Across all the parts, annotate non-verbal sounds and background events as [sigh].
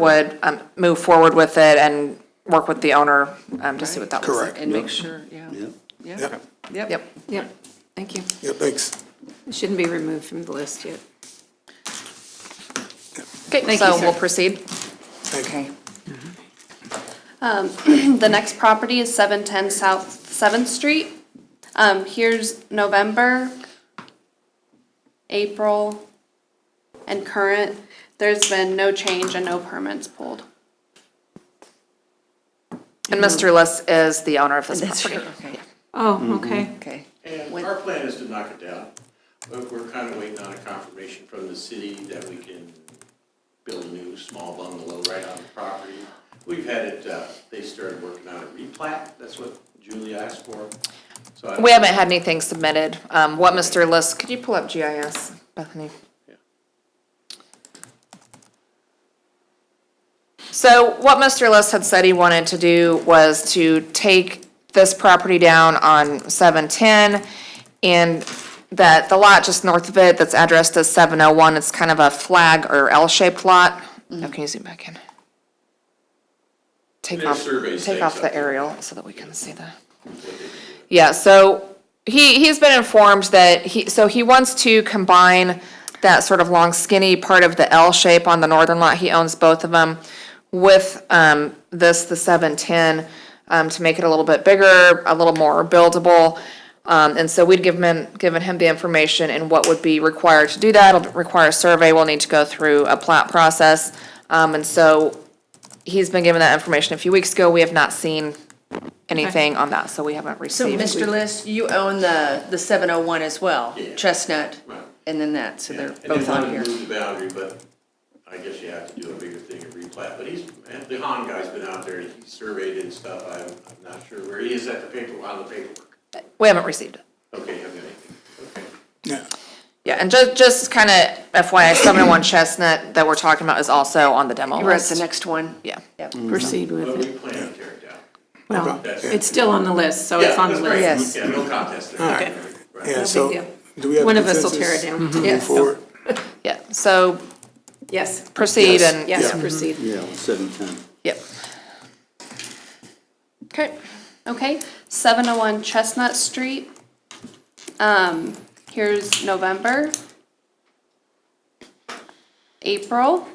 would um, move forward with it and work with the owner um, to see what that was. Correct. And make sure, yeah. Yeah. Yeah, Yeah, yep. Yep, Yep, thank you. yeah, thanks. It Shouldn't be removed from the list yet. okay, Thank you, so sir. we'll proceed. Thank Okay. you. The next property is seven ten South Seventh Street. Um, here's November, April, and current. There's been no change and no permits pulled. And Mr. Liss is the owner of this That's property. true, okay, Oh, okay. okay. And our plan is to knock it down, but we're kind of waiting on a confirmation from the city that we can build a new small bungalow right on the property. We've had it, uh, they started working on a replat, that's what Julie asked for. So I- We haven't had anything submitted. Um, What Mr. Liss, could you pull up GIS, Bethany? So what Mr. Liss had said he wanted to do was to take this property down on 710, and that the lot just north of it that's addressed as 701, it's kind of a flag or L-shaped lot. Mm-hmm. Now, can you zoom back in? Take Their off, survey take stakes off up the there. aerial so that we can see the. Yeah, so he, he's been informed that he, so he wants to combine that sort of long skinny part of the L shape on the northern lot, he owns both of them, with, um, this, the seven-ten, um, to make it a little bit bigger, a little more buildable. Um, and so we'd given him, given him the information and what would be required to do that, it'll require a survey, we'll need to go through a plat process. Um, and so he's been given that information a few weeks ago, we have not seen anything on that, so we haven't So, received. Mr. List, you own the, the seven oh one as well, Yeah. Chestnut, Right. and then that, so Yeah, they're both on here. And they wanted to move the boundary, but I guess you have to do a bigger thing of replat, but he's, and the Han guy's been out there, he surveyed and stuff, I'm, I'm not sure where he is at the paper, on the paperwork. We haven't received it. Okay, I've got anything, okay. Yeah, Yeah, and just, just kind of FYI, seven oh one [coughs] Chestnut that we're talking about is also on the demo You're at the list. next one? Yeah. Yep. Proceed But with we it. plan to tear it down. Well, That's- it's still on the list, so Yeah, it's on the that's right. Yes. list. Yeah, no contest there. Okay. Right. yeah, so, Mm-hmm. deal. do we have? One of us will tear consensus it down. to Move Yes. forward, Yeah, so Yes, proceed and, yeah, yes, Yeah. proceed. Yeah, seven ten. yep. Okay. Okay, seven oh one Chestnut Street. Um, here's November. April,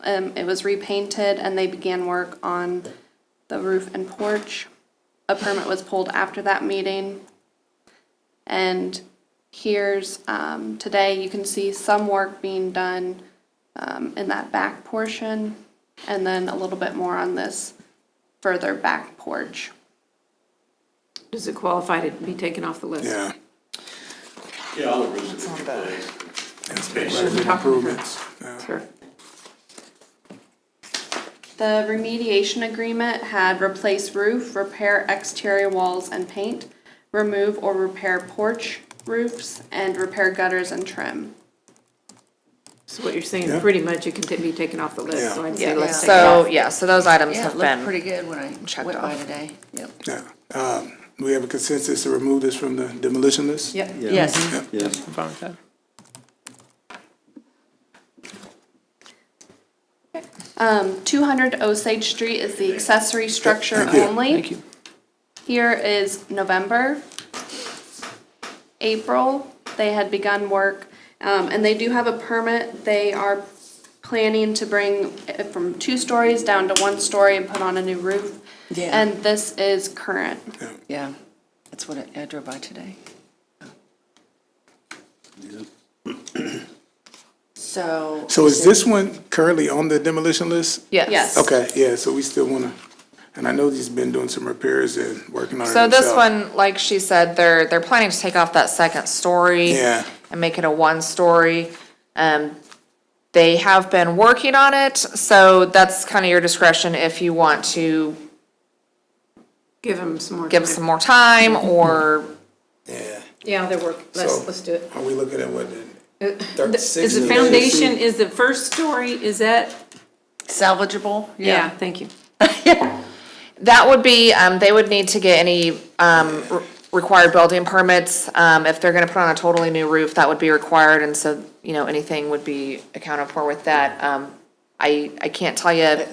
um, it was repainted and they began work on the roof and porch. A permit was pulled after that meeting. And here's, um, today, you can see some work being done, um, in that back portion. And then a little bit more on this further back porch. Does it qualify to be taken off the list? yeah. Yeah, all the roofs have been replaced. That's right, Improvements, yeah. Sure. The remediation agreement had replace roof, repair exterior walls and paint, remove or repair porch roofs, and repair gutters and trim. So what you're saying, Yeah. pretty much it can ta- be taken off the list, Yeah. so I'd say Yeah, let's take it off. so, yeah, so those items Yeah, it have looked been, pretty good when I checked went by off. today, yep. yeah. Um, Do we have a consensus to remove this from the demolition list? Yep, Yeah. Mm-hmm. yes. Yes. Um, two hundred Osage Street is the accessory structure Thank you. only. Thank you. Here is November. April, they had begun work, um, and they do have a permit. They are planning to bring it from two stories down to one story and put on a new roof. Yeah. And this is current. Yeah, that's what I- I drove by today. So. So is this one currently on the demolition list? yes. Yes. Okay, yeah, so we still wanna, and I know he's been doing some repairs and working on it So himself. this one, like she said, they're, they're planning to take off that second story. Yeah. And make it a one-story. Um, they have been working on it, so that's kind of your discretion if you want to Give them some more. give time. some more time or Yeah, Yeah, they're working, So- let's, let's do it. are we looking at what, the The- thirty-six? Is the foundation, is the first story, is that, Salvageable? yeah, thank you. That would be, um, they would need to get any, um, re- required building permits. Um, if they're gonna put on a totally new roof, that would be required, and so, you know, anything would be accounted for with that. Um, I, I can't tell you